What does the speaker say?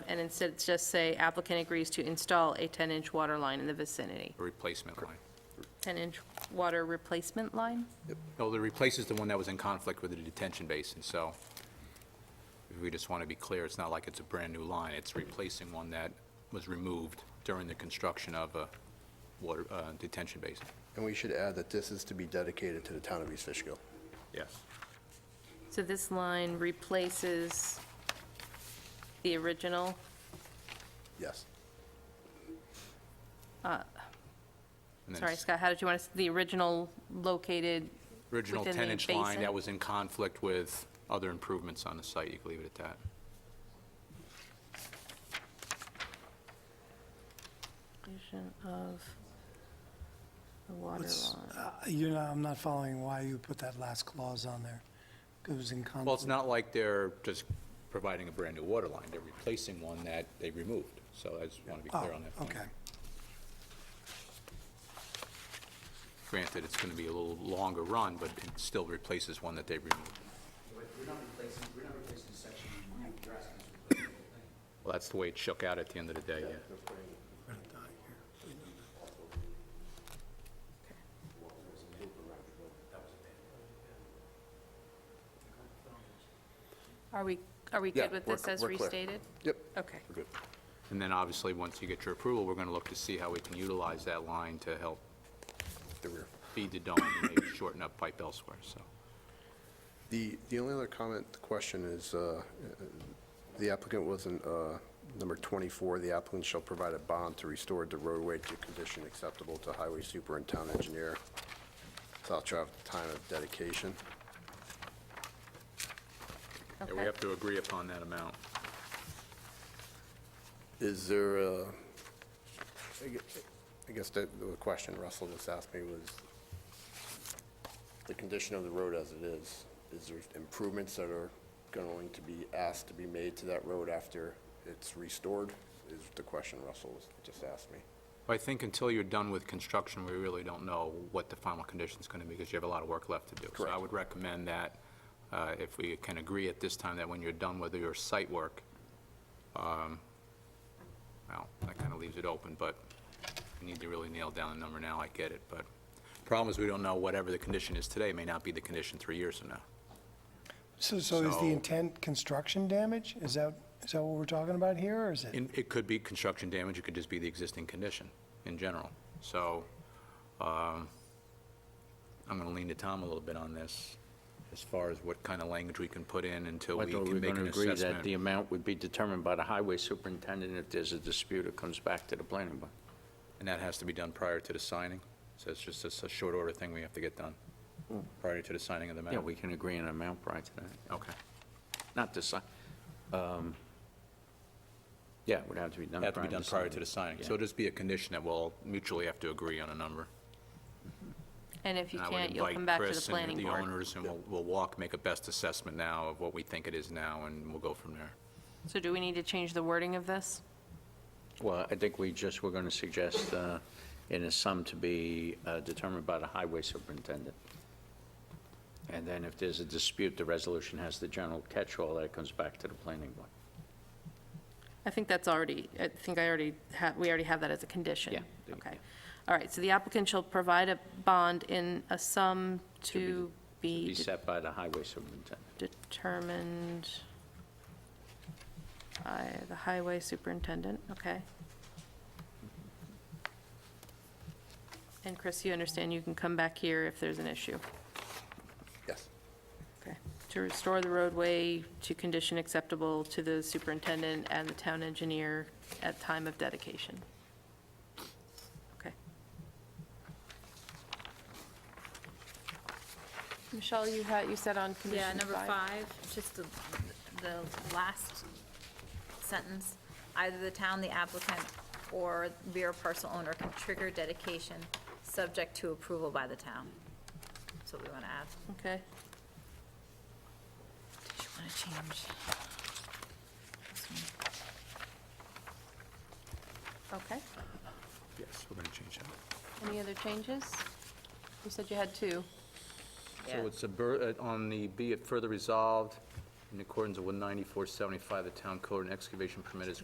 and instead just say applicant agrees to install a 10-inch water line in the vicinity. a replacement line. 10-inch water replacement line? No, it replaces the one that was in conflict with the detention basin, so we just want to be clear, it's not like it's a brand-new line. It's replacing one that was removed during the construction of a water, uh, detention basin. And we should add that this is to be dedicated to the town of East Fishkill. Yes. So this line replaces the original, Yes. sorry, Scott, how did you want to, the original located Original within the 10-inch line basin? that was in conflict with other improvements on the site, you can leave it at that. location of the water It's- line? uh, You know, I'm not following why you put that last clause on there. It was in conflict. Well, it's not like they're just providing a brand-new water line, they're replacing one that they removed, so I just want to be clear on that Oh, point. okay. Granted, it's going to be a little longer run, but it still replaces one that they removed. But we're not replacing, we're not replacing section nine, you're asking us to replace the whole thing. Well, that's the way it shook out at the end of the day, yeah. Are we, are we Yeah, good with we're this cl- as we're clear. restated? Yep. Okay. We're good. And then obviously, once you get your approval, we're going to look to see how we can utilize that line to help The rear. feed the dome and maybe shorten up pipe elsewhere, so. The, the only other comment, the question is, uh, uh, the applicant wasn't, uh, number 24, the applicant shall provide a bond to restore the roadway to condition acceptable to highway super and town engineer, South Drive, time of dedication. Yeah, we Okay. have to agree upon that amount. Is there a, I gue- I guess that the question Russell just asked me was, the condition of the road as it is, is there improvements that are going to be asked to be made to that road after it's restored? Is the question Russell just asked me. I think until you're done with construction, we really don't know what the final condition's going to be, because you have a lot of work left to do. So I Correct. would recommend that, uh, if we can agree at this time, that when you're done with your site work, um, well, that kind of leaves it open, but we need to really nail down the number now, I get it, but problem is, we don't know whatever the condition is today may not be the condition three years from now. So, so is So- the intent construction damage? Is that, is that what we're talking about here, or is it? And it could be construction damage, it could just be the existing condition in general. So, um, I'm gonna lean to Tom a little bit on this, as far as what kind of language we can put in until I we thought we were can make going to an agree that the assessment. amount would be determined by the highway superintendent. If there's a dispute, it comes back to the planning board. And that has to be done prior to the signing, so it's just it's a short order thing we have to get done, prior to the signing of the map. Yeah, we can agree on an amount prior to that. Okay, Not to sign, um, yeah, it would have to be done prior that to to be done prior to the signing. signing. So Yeah. it'll just be a condition that we'll mutually have to agree on a number. And if you And I would can't, you'll invite come back to the Chris and planning board. The owners, and we'll, we'll walk, make a best assessment now of what we think it is now, and we'll go from there. So do we need to change the wording of this? Well, I think we just, we're going to suggest uh, in a sum to be uh, determined by the highway superintendent. And then if there's a dispute, the resolution has the general catch-all that comes back to the planning board. I think that's already, I think I already have, we already have that as a condition. Yeah, there you Okay. go. All right, so the applicant shall provide a bond in a sum to Be be set by the highway superintendent. determined by the highway superintendent, okay? And Chris, you understand you can come back here if there's an issue. Yes. Okay. To restore the roadway to condition acceptable to the superintendent and the town engineer at time of dedication. Okay. Michelle, you had, you said on condition Yeah, number five, just the, the last sentence, either the town, the applicant, or rear parcel owner can trigger dedication subject to approval by the town. That's what we want to add. Okay, Did you want to change? this one? okay. Yes, we're going to change that. Any other changes? You said you had two. Yeah. So it's a, bur- uh, on the be it further resolved, in accordance with 194.75, the town code, an excavation permit is